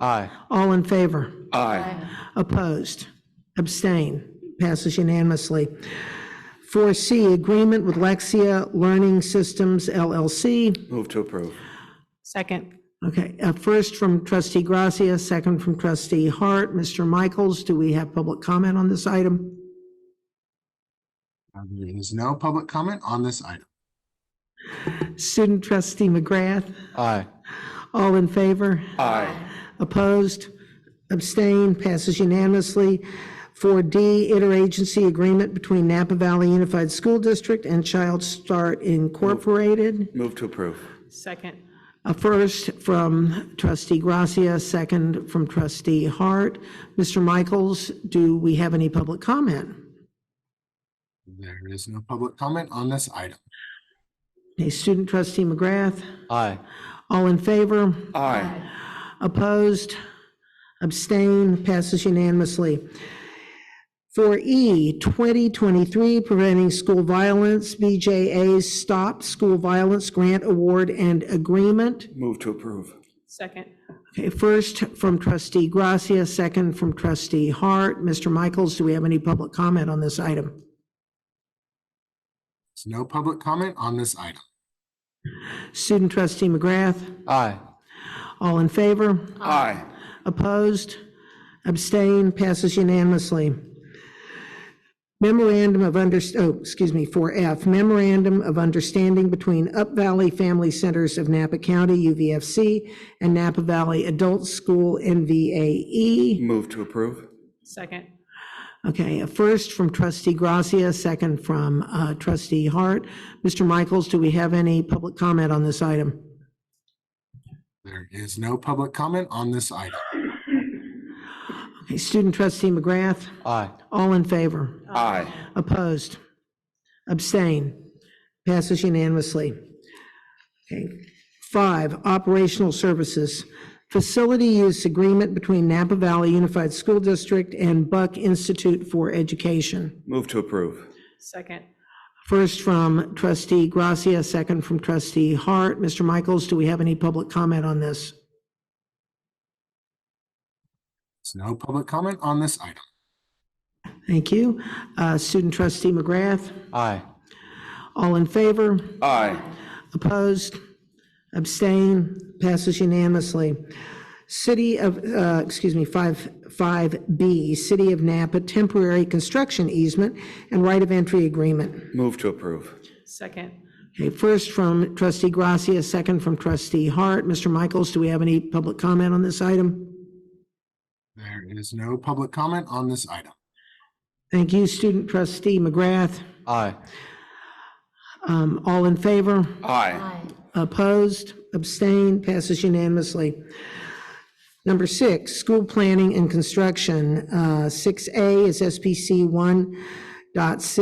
Aye. All in favor? Aye. Opposed? Abstain? Passes unanimously. 4C, agreement with Lexia Learning Systems LLC. Move to approve. Second. Okay, uh, first from trustee Gracia, second from trustee Hart. Mr. Michaels, do we have public comment on this item? Uh, There is no public comment on this item. Student trustee McGrath, Aye. all in favor? Aye. Opposed? Abstained? Passes unanimously. 4D, interagency agreement between Napa Valley Unified School District and Child Start Incorporated. Move to approve. Second. A first from trustee Gracia, second from trustee Hart. Mr. Michaels, do we have any public comment? There is no public comment on this item. Okay, student trustee McGrath, Aye. all in favor? Aye. Opposed? Abstain? Passes unanimously. For E, 2023 Preventing School Violence, BJA's Stop School Violence Grant Award and Agreement. Move to approve. Second. Okay, First from trustee Gracia, second from trustee Hart. Mr. Michaels, do we have any public comment on this item? There's no public comment on this item. Student trustee McGrath, Aye. all in favor? Aye. Opposed? Abstain? Passes unanimously. Memorandum of under, oh, excuse me, 4F, Memorandum of Understanding between Up Valley Family Centers of Napa County, UVFC, and Napa Valley Adult School, NVAE. Move to approve. Second. E. Okay, a first from trustee Gracia, second from uh, trustee Hart. Mr. Michaels, do we have any public comment on this item? There is no public comment on this item. Okay, Student trustee McGrath, Aye. all in favor? Aye. Opposed? Abstain? Passes unanimously. Okay. Five, operational services. Facility use agreement between Napa Valley Unified School District and Buck Institute for Education. Move to approve. Second. First from trustee Gracia, second from trustee Hart. Mr. Michaels, do we have any public comment on this? There's no public comment on this item. Thank you. Uh, Student trustee McGrath, Aye. all in favor? Aye. Opposed? Abstain? Passes unanimously. City of, uh, excuse me, 5, 5B, City of Napa Temporary Construction Easement and Right of Entry Agreement. Move to approve. Second. Okay, first from trustee Gracia, second from trustee Hart. Mr. Michaels, do we have any public comment on this item? There is no public comment on this item. Thank you, student trustee McGrath. Aye. Um, All in favor? Aye. Opposed, abstained, passes unanimously. Number six, school planning and construction. Uh, 6A is SPC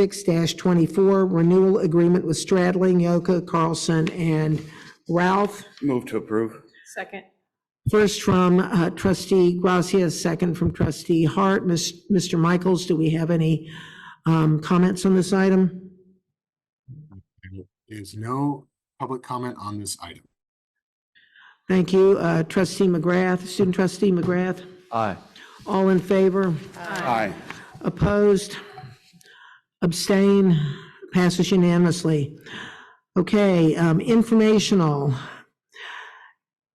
1.6-24, renewal agreement with Stradling, Yoka, Carlson, and Ralph. Move to approve. Second. First from uh, trustee Gracia, second from trustee Hart. Miss- Mr. Michaels, do we have any um, comments on this item? There is no public comment on this item. Thank you. Uh, Trustee McGrath, student trustee McGrath, Aye. all in favor? Aye. Opposed? Abstain? Passes unanimously. Okay, um, informational.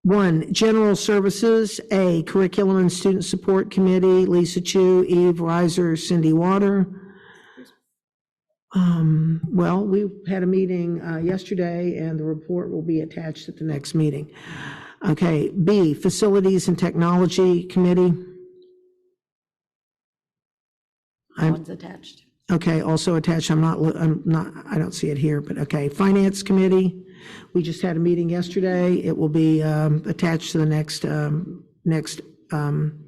One, general services, A, curriculum and student support committee, Lisa Chu, Eve Reiser, Cindy Water. Um, Well, we had a meeting uh, yesterday, and the report will be attached at the next meeting. Okay, B, facilities and technology committee. One's attached. Okay, also attached, I'm not, lo- I'm not, I don't see it here, but okay, Finance Committee, we just had a meeting yesterday, it will be um, attached to the next, um, next um,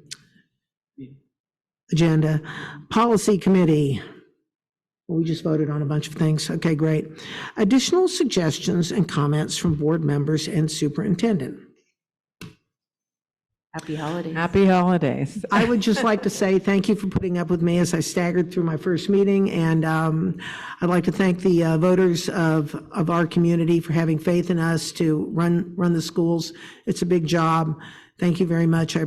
agenda. Policy Committee, we just voted on a bunch of things, okay, great. Additional suggestions and comments from board members and superintendent. Happy holidays. Happy holidays. I would just like to say thank you for putting up with me as I staggered through my first meeting, and um, I'd like to thank the uh, voters of, of our community for having faith in us to run, run the schools. It's a big job. Thank you very much. I